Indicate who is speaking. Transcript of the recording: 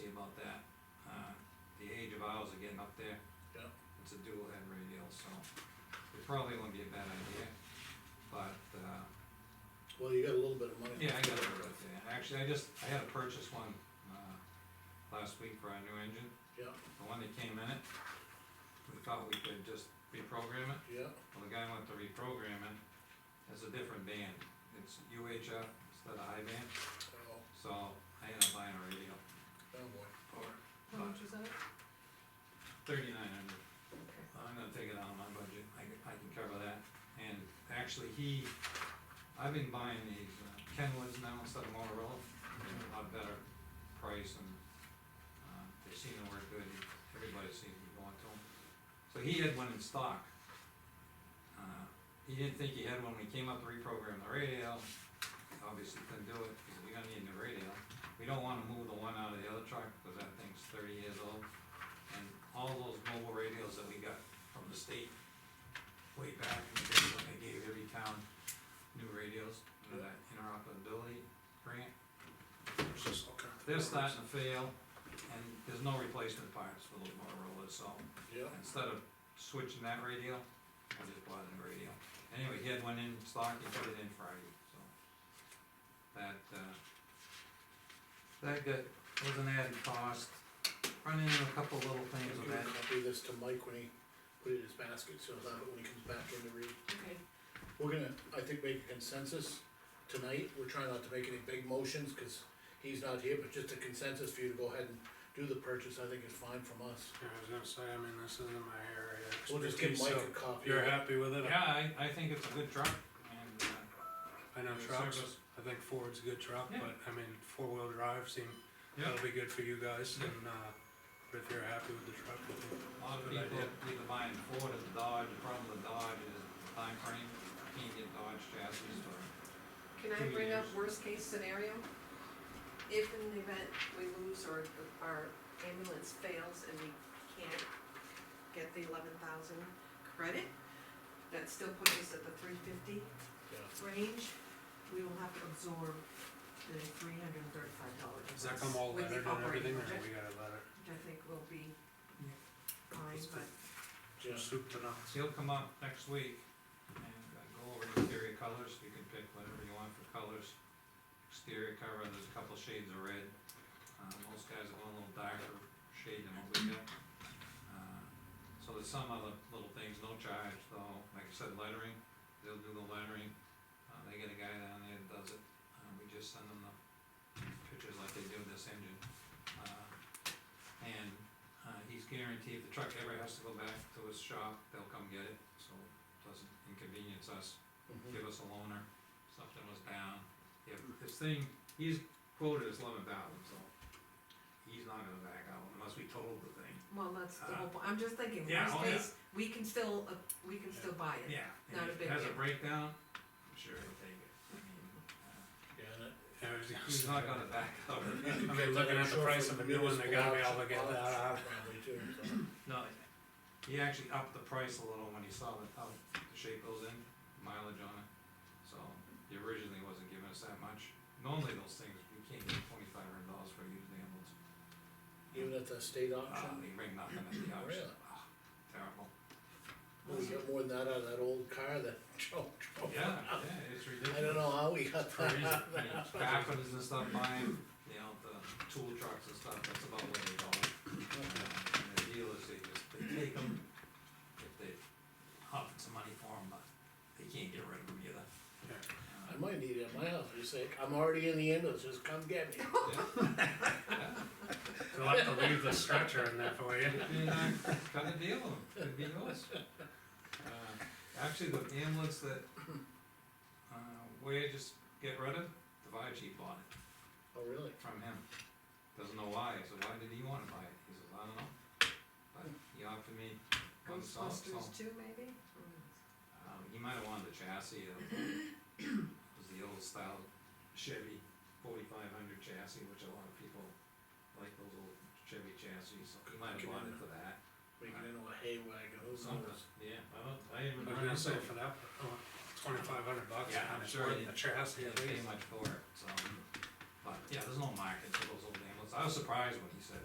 Speaker 1: about that. Uh, The age of owls are getting up there.
Speaker 2: Yeah.
Speaker 1: It's a dual head radial, so it probably wouldn't be a bad idea, but, uh,
Speaker 2: Well, you got a little bit of money.
Speaker 1: yeah, I got it right there. Actually, I just, I had to purchase one, uh, last week for our new engine.
Speaker 2: Yeah,
Speaker 1: The one that came in it, we thought we could just reprogram it.
Speaker 2: yeah,
Speaker 1: Well, the guy went to reprogram it, it's a different band. It's UHF instead of high band,
Speaker 2: oh,
Speaker 1: so I ended up buying a radio,
Speaker 2: oh boy.
Speaker 3: How much is that?
Speaker 1: thirty-nine hundred. I'm gonna take it out of my budget, I can, I can cover that. And actually, he, I've been buying these uh, Kenwoods now instead of Motorola, they're a lot better price and, uh, they seem to work good, everybody seems to be going to them. So he had one in stock. Uh, He didn't think he had one, when he came up to reprogram the radio, obviously couldn't do it, because you're gonna need the radio. We don't wanna move the one out of the other truck, because that thing's thirty years old. And all those mobile radios that we got from the state way back in the day, when they gave every town new radios under that interoperability grant,
Speaker 2: It's just all kinds of
Speaker 1: they're starting to fail, and there's no replacement parts for those Motorola's, so
Speaker 2: Yeah,
Speaker 1: instead of switching that radio, I just bought a new radio. Anyway, he had one in stock, he put it in Friday, so. That, uh, that got, was an added cost, run into a couple little
Speaker 2: I'm
Speaker 1: things with
Speaker 2: gonna
Speaker 1: that.
Speaker 2: copy this to Mike when he put it in his basket, so that when he comes back in to read.
Speaker 3: Okay,
Speaker 2: We're gonna, I think, make a consensus tonight, we're trying not to make any big motions, cause he's not here, but just a consensus for you to go ahead and do the purchase, I think is fine from us.
Speaker 4: Yeah, I was gonna say, I mean, this isn't my area. of
Speaker 2: We'll just give
Speaker 4: expertise,
Speaker 2: Mike
Speaker 4: so
Speaker 2: a copy.
Speaker 4: You're happy with it?
Speaker 1: Yeah, I, I think it's a good truck, and, uh,
Speaker 4: I know
Speaker 1: Yeah,
Speaker 4: trucks,
Speaker 1: service.
Speaker 4: I think Ford's a good truck,
Speaker 1: Yeah.
Speaker 4: but I mean, four-wheel drive seem,
Speaker 1: yeah,
Speaker 4: that'll be good for you guys and, uh, but if you're happy with the truck, I think
Speaker 1: a lot of
Speaker 4: Good
Speaker 1: people
Speaker 4: idea.
Speaker 1: either buying Ford or the Dodge, the problem with the Dodge is the timeframe, You can't get Dodge chassis or
Speaker 3: can
Speaker 1: Two
Speaker 3: I bring up
Speaker 1: years.
Speaker 3: worst case scenario? If in the event we lose or the- our ambulance fails and we can't get the eleven thousand credit, that still puts us at the three fifty
Speaker 2: Yeah.
Speaker 3: range, we will have to absorb the three hundred and thirty-five dollars.
Speaker 4: Does that come all
Speaker 3: With the
Speaker 4: lettered and
Speaker 3: operating
Speaker 4: everything, or
Speaker 3: budget,
Speaker 4: we gotta let it
Speaker 3: Which I think will be
Speaker 1: Yeah.
Speaker 3: fine,
Speaker 4: That's
Speaker 3: but
Speaker 4: good.
Speaker 2: Yeah,
Speaker 4: soup to nuts?
Speaker 1: He'll come up next week and uh, go over the exterior colors, you can pick whatever you want for colors. Exterior cover, there's a couple shades of red, uh, most guys are going a little darker shade than what we got. Uh, So there's some other little things, no charge though, like I said, lettering, they'll do the lettering, uh, they get a guy down there that does it, uh, we just send them the pictures like they do this engine. Uh, And uh, he's guaranteed if the truck ever has to go back to his shop, they'll come get it, so it doesn't inconvenience us,
Speaker 2: mhm,
Speaker 4: Mm-hmm.
Speaker 1: give us a loaner, something was down. If this thing, he's quoted as eleven thousand, so he's not gonna back out unless we total the thing.
Speaker 3: Well, that's the
Speaker 1: Uh,
Speaker 3: whole, point. I'm just thinking,
Speaker 1: yeah,
Speaker 3: worst
Speaker 1: oh, yeah.
Speaker 3: case, we can still, uh, we can still buy it.
Speaker 1: Yeah. and
Speaker 3: Not a
Speaker 1: if
Speaker 3: big
Speaker 1: it Has a
Speaker 3: deal.
Speaker 1: breakdown, I'm sure he'll take it. I mean, uh,
Speaker 2: yeah, and it-
Speaker 4: Yeah, I was gonna
Speaker 1: He's
Speaker 4: say,
Speaker 1: not gonna back out.
Speaker 2: you can
Speaker 4: I
Speaker 2: get
Speaker 4: mean, looking
Speaker 2: that
Speaker 4: at the
Speaker 2: short
Speaker 4: price
Speaker 2: from
Speaker 4: of a new one, they gotta be
Speaker 2: municipal
Speaker 4: able to get
Speaker 2: auction,
Speaker 4: that out.
Speaker 2: Probably too, so,
Speaker 1: No, he actually upped the price a little when he saw the, how the shape goes in, mileage on it. So he originally wasn't giving us that much. Normally those things, you can't get twenty-five hundred dollars for a used ambulance.
Speaker 2: even at the state
Speaker 1: Uh,
Speaker 2: auction,
Speaker 1: they bring nothing at the auction.
Speaker 2: Really?
Speaker 1: Ah, Terrible.
Speaker 2: well, we got more than that out of that old car that Joe drove.
Speaker 1: Yeah, yeah, it's ridiculous.
Speaker 2: I don't know how we got that.
Speaker 1: Crazy. I mean, Packers and stuff buying, you know, the tool trucks and stuff, that's about what they call it. And the dealers, they just, they take them, if they offer some money for them, but they can't get rid of them either.
Speaker 4: Yeah.
Speaker 2: I might need it at my house, you say, I'm already in the ambulance, just come get me.
Speaker 4: They'll have to leave the stretcher in there for you.
Speaker 1: And I cut a deal with them, it'd be yours. Uh, Actually, the ambulance that, uh, we just get rid of, the fire chief bought it.
Speaker 2: Oh, really?
Speaker 1: from him. Doesn't know why, I said, why did he wanna buy it? He says, I don't know. But he offered me one salt, so,
Speaker 3: Ghostbusters two, maybe?
Speaker 1: um, he might have wanted the chassis of, it was the old style Chevy forty-five hundred chassis, which a lot of people like those old Chevy chassis, so he might have wanted for that.
Speaker 2: Make it into a hay wagon, who
Speaker 1: Something,
Speaker 2: knows?
Speaker 1: yeah, I don't, I even.
Speaker 4: I was gonna say for that, oh, twenty-five hundred bucks,
Speaker 1: Yeah, I'm
Speaker 4: and it's
Speaker 1: sure
Speaker 4: worth
Speaker 1: you-
Speaker 4: the chassis
Speaker 1: Yeah,
Speaker 4: at
Speaker 1: they
Speaker 4: least.
Speaker 1: pay much for it, so, but, yeah, there's no market for those old ambulance, I was surprised when he said